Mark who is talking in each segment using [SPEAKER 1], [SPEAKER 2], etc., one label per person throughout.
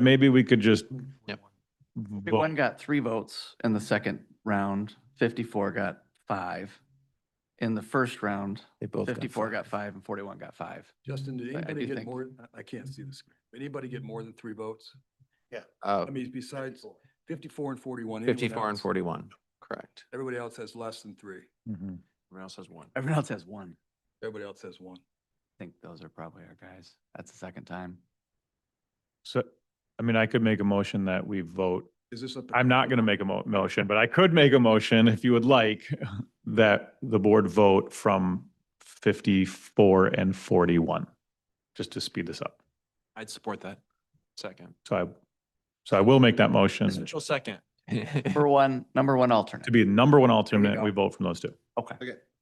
[SPEAKER 1] Maybe we could just.
[SPEAKER 2] Yep.
[SPEAKER 1] vote.
[SPEAKER 3] One got three votes in the second round, fifty-four got five. In the first round,
[SPEAKER 4] They both got
[SPEAKER 3] fifty-four got
[SPEAKER 4] five.
[SPEAKER 3] five and forty-one got five.
[SPEAKER 5] Justin, did
[SPEAKER 3] I- I
[SPEAKER 5] anybody
[SPEAKER 3] do
[SPEAKER 5] get
[SPEAKER 3] think-
[SPEAKER 5] more, I- I can't see this, anybody get more than three votes?
[SPEAKER 2] Uh,
[SPEAKER 5] I mean, besides fifty-four and forty-one. anyone
[SPEAKER 2] fifty-four and
[SPEAKER 5] else-
[SPEAKER 2] forty-one, correct.
[SPEAKER 5] Everybody else has less than three,
[SPEAKER 1] Mhm.
[SPEAKER 2] Everyone else has one.
[SPEAKER 3] Everyone else has one.
[SPEAKER 5] everybody else has one.
[SPEAKER 3] I think those are probably our guys. That's the second time.
[SPEAKER 1] So, I mean, I could make a motion that we vote.
[SPEAKER 5] Is this a?
[SPEAKER 1] I'm not going to make a mo- motion, but I could make a motion if you would like that the board vote from fifty-four and forty-one, just to speed this up.
[SPEAKER 2] I'd support that. Second.
[SPEAKER 1] So I, so I will make that motion to
[SPEAKER 2] Mitchell, second.
[SPEAKER 3] Number one, number one alternate.
[SPEAKER 1] be the number one alternate. We vote from those two.
[SPEAKER 6] Okay.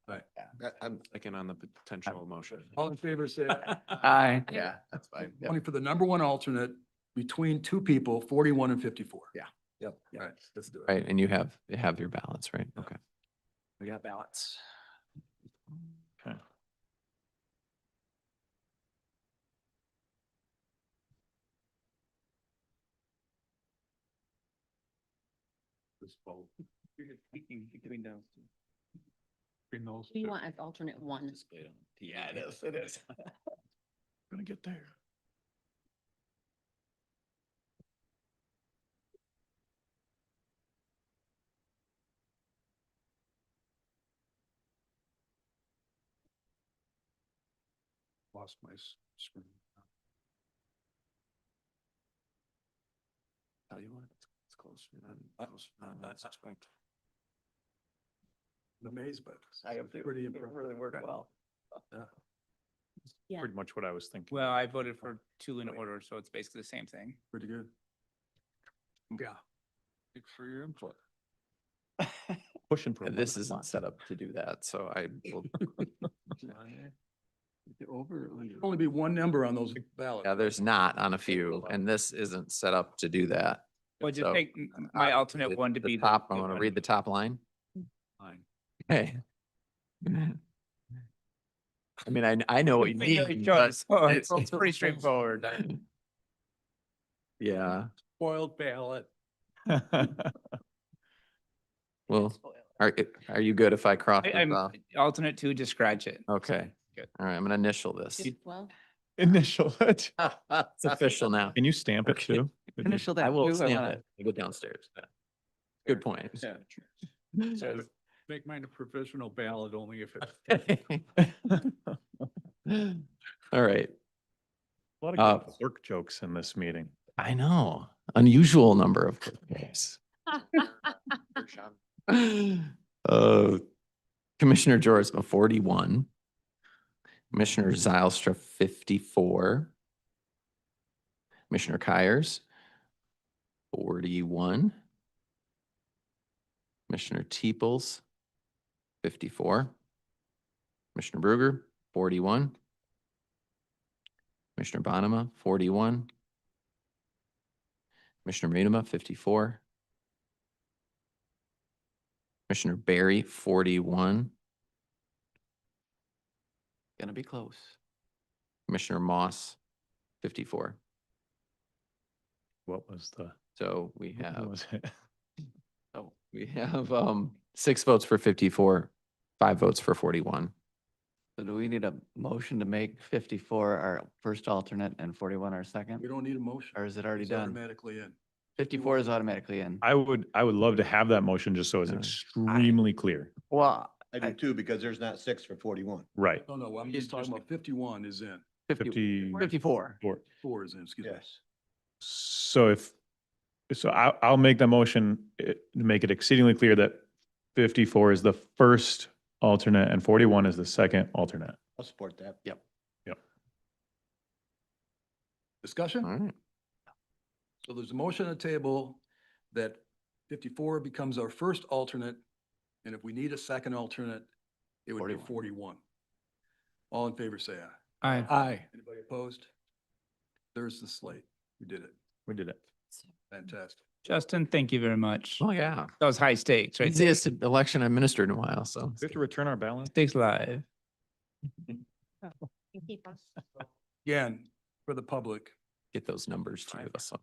[SPEAKER 5] Right.
[SPEAKER 6] I- I'm,
[SPEAKER 2] Second on the potential motion.
[SPEAKER 5] All in favor, say aye.
[SPEAKER 3] Aye.
[SPEAKER 6] yeah, that's fine. Yep.
[SPEAKER 5] Only for the number one alternate between two people, forty-one and fifty-four.
[SPEAKER 6] Yeah. Yep.
[SPEAKER 5] All right, let's do it.
[SPEAKER 2] Right, and you have, you have your balance, right? Okay.
[SPEAKER 3] We got ballots.
[SPEAKER 7] We want as alternate one.
[SPEAKER 6] Yeah, it is, it is.
[SPEAKER 1] Gonna get there.
[SPEAKER 5] Lost my s- screen. Oh,
[SPEAKER 2] Tell you what, it's close.
[SPEAKER 5] that's I'm Amazed by this.
[SPEAKER 6] I am
[SPEAKER 5] It's
[SPEAKER 6] too.
[SPEAKER 5] Pretty
[SPEAKER 6] It
[SPEAKER 5] impressive.
[SPEAKER 6] really worked well.
[SPEAKER 7] Yeah.
[SPEAKER 1] Pretty much what I was thinking.
[SPEAKER 8] Well, I voted for two in order, so it's basically the same thing.
[SPEAKER 5] Pretty good. Yeah.
[SPEAKER 2] For your input.
[SPEAKER 1] Pushing for.
[SPEAKER 2] This isn't set up to do that, so I will,
[SPEAKER 5] Only be one number on those ballots.
[SPEAKER 2] yeah, there's not on a few, and this isn't set up to do that.
[SPEAKER 8] Well,
[SPEAKER 2] So,
[SPEAKER 8] just take m- m-
[SPEAKER 2] uh,
[SPEAKER 8] my alternate
[SPEAKER 2] the-
[SPEAKER 8] one to
[SPEAKER 2] the
[SPEAKER 8] be. the-
[SPEAKER 2] Top,
[SPEAKER 8] the
[SPEAKER 2] I want to
[SPEAKER 8] one-
[SPEAKER 2] read the top line.
[SPEAKER 5] Line.
[SPEAKER 2] Hey. I mean, I, I know what you
[SPEAKER 8] Finger
[SPEAKER 2] mean,
[SPEAKER 8] choice,
[SPEAKER 2] but.
[SPEAKER 8] so It's it's pretty straightforward.
[SPEAKER 2] Yeah,
[SPEAKER 5] Spoiled ballot.
[SPEAKER 2] well, are, are you good if I cross
[SPEAKER 8] I-
[SPEAKER 2] this
[SPEAKER 8] I'm
[SPEAKER 2] off?
[SPEAKER 8] alternate two, just scratch it.
[SPEAKER 2] Okay,
[SPEAKER 8] Good.
[SPEAKER 2] all right, I'm gonna initial this.
[SPEAKER 7] Just Well,
[SPEAKER 1] Initial it.
[SPEAKER 2] It's official now.
[SPEAKER 1] Can you stamp it
[SPEAKER 2] Okay.
[SPEAKER 1] too? Could you-
[SPEAKER 3] Initial that.
[SPEAKER 2] I will
[SPEAKER 3] too,
[SPEAKER 2] stamp
[SPEAKER 3] wanna-
[SPEAKER 2] it. I go downstairs. Yeah. Good point.
[SPEAKER 5] Make mine a provisional ballot only if it's.
[SPEAKER 2] All right,
[SPEAKER 1] A lot
[SPEAKER 2] Uh,
[SPEAKER 1] of good clerk jokes in this meeting.
[SPEAKER 2] I know, unusual number of clicks. Uh, Commissioner Jorsma, forty-one. Commissioner Zylstra, fifty-four. Commissioner Kyers, forty-one. Commissioner Teeples, fifty-four. Commissioner Bruger, forty-one. Commissioner Bonema, forty-one. Commissioner Munema, fifty-four. Commissioner Barry, forty-one.
[SPEAKER 3] Gonna be close.
[SPEAKER 2] Commissioner Moss, fifty-four.
[SPEAKER 1] What was the?
[SPEAKER 2] So we
[SPEAKER 1] what
[SPEAKER 2] have,
[SPEAKER 1] was it?
[SPEAKER 2] oh, we have, um, six votes for fifty-four, five votes for forty-one.
[SPEAKER 3] So do we need a motion to make fifty-four our first alternate and forty-one our second?
[SPEAKER 5] We don't need a motion.
[SPEAKER 3] Or is it already
[SPEAKER 5] It's
[SPEAKER 3] done?
[SPEAKER 5] Automatically in.
[SPEAKER 3] Fifty-four is automatically in.
[SPEAKER 1] I would, I would love to have that motion just so it's
[SPEAKER 2] Uh, I-
[SPEAKER 1] extremely clear.
[SPEAKER 3] Well,
[SPEAKER 6] I
[SPEAKER 3] I-
[SPEAKER 6] do too, because there's not six for forty-one.
[SPEAKER 1] Right.
[SPEAKER 5] No, no, I'm
[SPEAKER 3] He's
[SPEAKER 5] just talking
[SPEAKER 3] talking-
[SPEAKER 5] about fifty-one is in,
[SPEAKER 1] 50
[SPEAKER 3] fifty, fifty-four.
[SPEAKER 1] Or-
[SPEAKER 5] four is in, excuse me.
[SPEAKER 6] Yes.
[SPEAKER 1] So if, so I, I'll make the motion, eh, to make it exceedingly clear that fifty-four is the first alternate and forty-one is the second alternate.
[SPEAKER 6] I'll support that.
[SPEAKER 3] Yep.
[SPEAKER 5] Discussion?
[SPEAKER 2] All right.
[SPEAKER 5] So there's a motion on the table that fifty-four becomes our first alternate, and if we need a second alternate, it would be
[SPEAKER 3] 41.
[SPEAKER 5] forty-one. All in favor, say aye.
[SPEAKER 8] Aye.
[SPEAKER 5] Aye. Anybody opposed? There's the slate. We did it.
[SPEAKER 1] We did it.
[SPEAKER 5] Fantastic.
[SPEAKER 8] Justin, thank you very much.
[SPEAKER 2] Oh, yeah.
[SPEAKER 8] That was high stakes, right?
[SPEAKER 2] Easiest election I've ministered in a while, so.
[SPEAKER 1] We have to return our balance.
[SPEAKER 8] Stakes live.
[SPEAKER 7] keep us.
[SPEAKER 5] Again, for the public,
[SPEAKER 2] Get those numbers to you. so.